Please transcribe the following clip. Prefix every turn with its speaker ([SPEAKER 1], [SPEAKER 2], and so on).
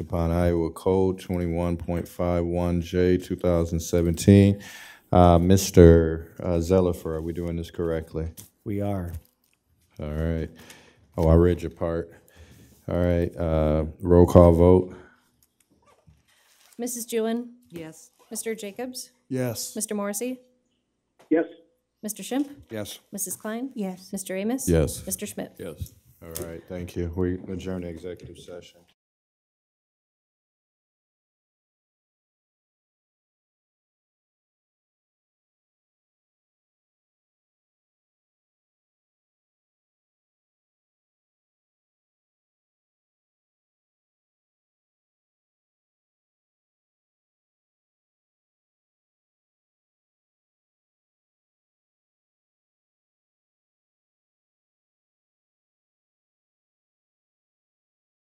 [SPEAKER 1] upon Iowa Code twenty-one point five one J, two thousand seventeen. Uh, Mr. uh, Zellifer, are we doing this correctly?
[SPEAKER 2] We are.
[SPEAKER 1] All right. Oh, I read your part. All right, uh, roll call vote?
[SPEAKER 3] Mrs. Jewin,
[SPEAKER 4] Yes.
[SPEAKER 3] Mr. Jacobs,
[SPEAKER 5] Yes.
[SPEAKER 3] Mr. Morrissey,
[SPEAKER 6] yes,
[SPEAKER 3] Mr. Schimpf,
[SPEAKER 5] Yes.
[SPEAKER 3] Mrs. Klein,
[SPEAKER 4] Yes.
[SPEAKER 3] Mr. Amos.
[SPEAKER 1] Yes.
[SPEAKER 3] Mr. Schmidt.
[SPEAKER 5] Yes.
[SPEAKER 1] All right, thank you. We adjourn the executive session.